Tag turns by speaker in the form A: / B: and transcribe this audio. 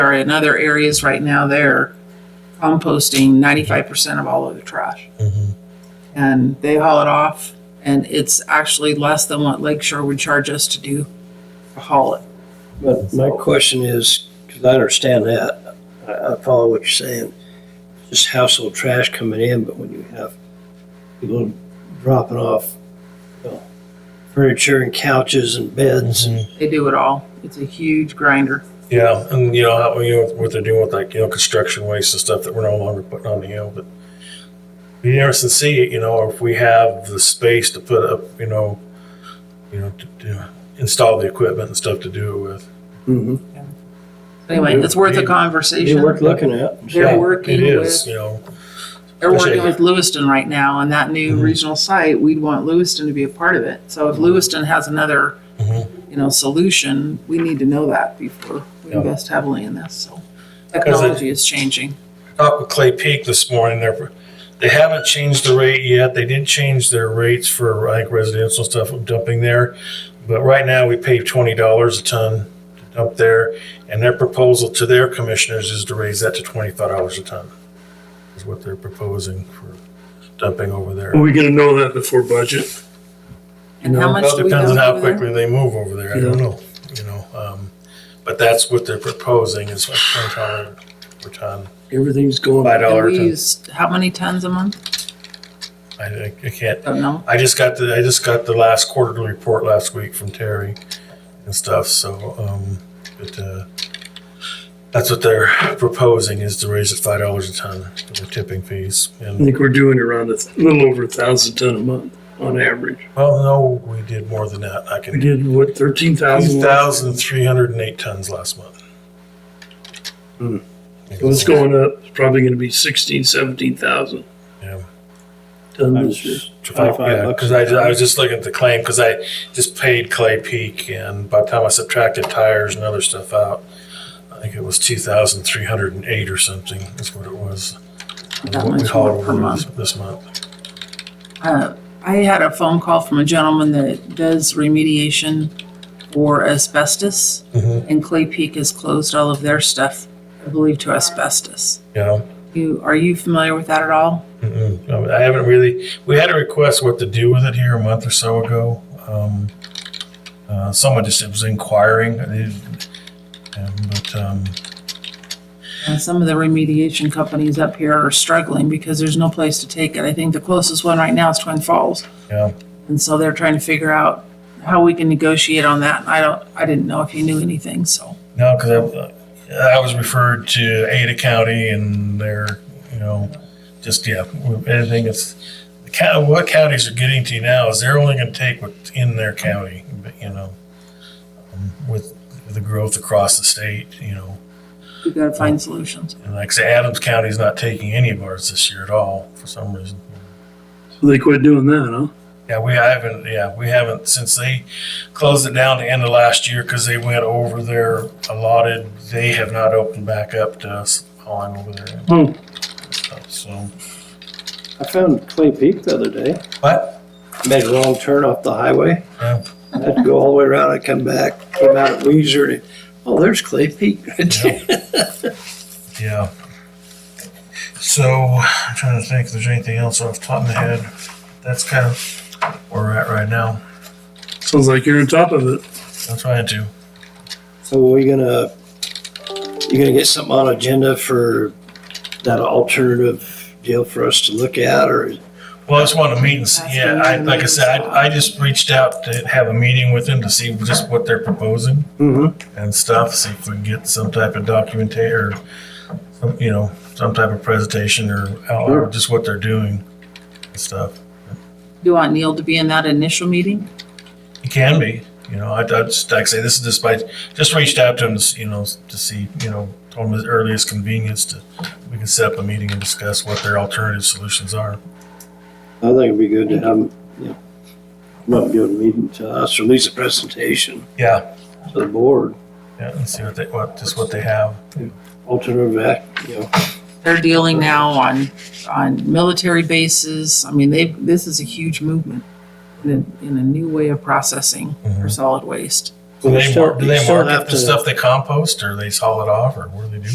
A: are in other areas right now, they're composting ninety-five percent of all of the trash.
B: Mhm.
A: And they haul it off and it's actually less than what Lakeshore would charge us to do to haul it.
C: But my question is, because I understand that, I, I follow what you're saying, just household trash coming in, but when you have people dropping off, you know, furniture and couches and beds and
A: They do it all. It's a huge grinder.
B: Mm-hmm. Yeah, and you know how you know, what they're doing with like you know construction waste and stuff that we're no longer putting on the hill, but be interesting to see you know if we have the space to put up you know you know to, to install the equipment and stuff to do it with.
D: Mm-hmm.
A: Anyway, it's worth a
C: they
A: conversation.
C: worth looking at.
A: They're working
B: It is
A: with,
B: you know
A: they're working
B: Appreciate
A: with Lewiston right now on that new
B: Mhm.
A: regional site. We'd want Lewiston to be a part of it. So if
B: Mm-hmm.
A: Lewiston has another,
B: Mhm.
A: you know, solution, we need to know that before we
B: Yeah.
A: invest heavily in this. So
B: it-
A: technology is changing.
B: talked with Clay Peak this morning. They're, they haven't changed the rate yet. They did change their rates for like residential stuff of dumping there. But right now we pay twenty dollars a ton to dump there. And their proposal to their commissioners is to raise that to twenty-five dollars a ton. Is what they're proposing for dumping over there.
D: Are we gonna know that before budget?
A: And how much
B: Well,
A: do we
B: depends on
A: dump
B: how
A: over there?
B: quickly they move over there. I don't know, you know, um, but that's what they're proposing is like twenty dollars per ton,
D: Everything's going.
B: five
A: And
B: dollars
A: we
B: a ton.
A: use how many tons a month?
B: I, I- I can't
A: Don't know.
B: I just got the I just got the last quarterly report last week from Terry and stuff. So, um, but uh, that's what they're proposing is to raise it five dollars a ton for the tipping fees.
D: I
B: And
D: think we're doing around a th- little over a thousand ton a month on average.
B: well, no, we did more than that. I
D: We
B: can
D: did what, thirteen thousand?
B: two thousand three hundred and eight tons last month.
C: Hmm.
D: So it's going up, it's probably gonna be sixteen, seventeen thousand
B: Yeah.
D: ton this year.
C: Twenty-five bucks
B: because
C: a
B: I, ju- I
C: ton.
B: was just looking at the claim because I just paid Clay Peak, and by the time I subtracted tires and other stuff out, I think it was two thousand three hundred and eight or something. That's what it was. was
A: That
B: what we
A: much more
B: hauled
A: per
B: over
A: month.
B: this- This month.
A: Uh, I had a phone call from a gentleman that does remediation for asbestos,
B: Mhm.
A: and Clay Peak has closed all of their stuff, I believe, to asbestos.
B: Yeah.
A: You are you familiar with that at all?
B: Mm-mm. No, I haven't really. We had a request what to do with it here a month or so ago. Um, uh, someone just was inquiring, They- um, but um,
A: And some of the remediation companies up here are struggling because there's no place to take it. I think the closest one right now is Twin Falls,
B: yeah,
A: and so they're trying to figure out how we can negotiate on that. I don't, I didn't know if you knew anything, so
B: no, because I, I was referred to Ada County and they're you know just yeah anything that's the county, what counties are getting to now is they're only going to take what's in their county, but, you know, um, with the growth across the state, you know.
A: we got to find solutions.
B: And like I say, Adams County's not taking any of ours this year at all for some reason.
D: So they quit doing that, huh?
B: Yeah, we haven't. Yeah, we haven't since they closed it down the end of last year because they went over their allotted. They have not opened back up to us hauling over there and
D: Oh,
B: stuff. So,
C: I found Clay Peak the other day,
B: but uh,
C: made a wrong turn off the highway.
B: Yeah.
C: I had to go all the way around, I come back, came out at Leisure, and, oh, there's Clay Peak right there.
B: yeah. So I'm trying to think if there's anything else off the top of my head. That's kind of where we're at right now.
D: sounds like you're on top of it.
B: I'm trying to.
C: So are we gonna, you gonna get something on agenda for that alternative deal for us to look at, or
B: Well, I just want to meet and see, yeah, I, like I said, I, I just reached out to have a meeting with them to see just what they're proposing and stuff, see if we can get some type of documentation or, some, you know, some type of presentation or outline
C: Sure.
B: of just what they're doing and stuff.
A: Do you want Neil to be in that initial meeting?
B: It can be, you know, I, I just, like I say, this is just by, just reached out to them, you know, to see, you know, told them the earliest convenience to, we can set up a meeting and discuss what their alternative solutions are.
C: I think it'd be good to have, them, you know, come up and give a meeting to us, or at least a presentation
B: Yeah,
C: to the board,
B: yeah, and see what they, what, just what they have.
C: alternative act, you know.
A: they're dealing now on, on military bases. I mean, they, this is a huge movement in a, in a new way of processing for
B: Mhm.
A: solid waste.
B: Do
C: You
B: they, mar-
C: still-
B: do
C: you
B: they
C: still
B: market
C: have
B: the
C: to-
B: stuff they compost or they haul it off or what do they do?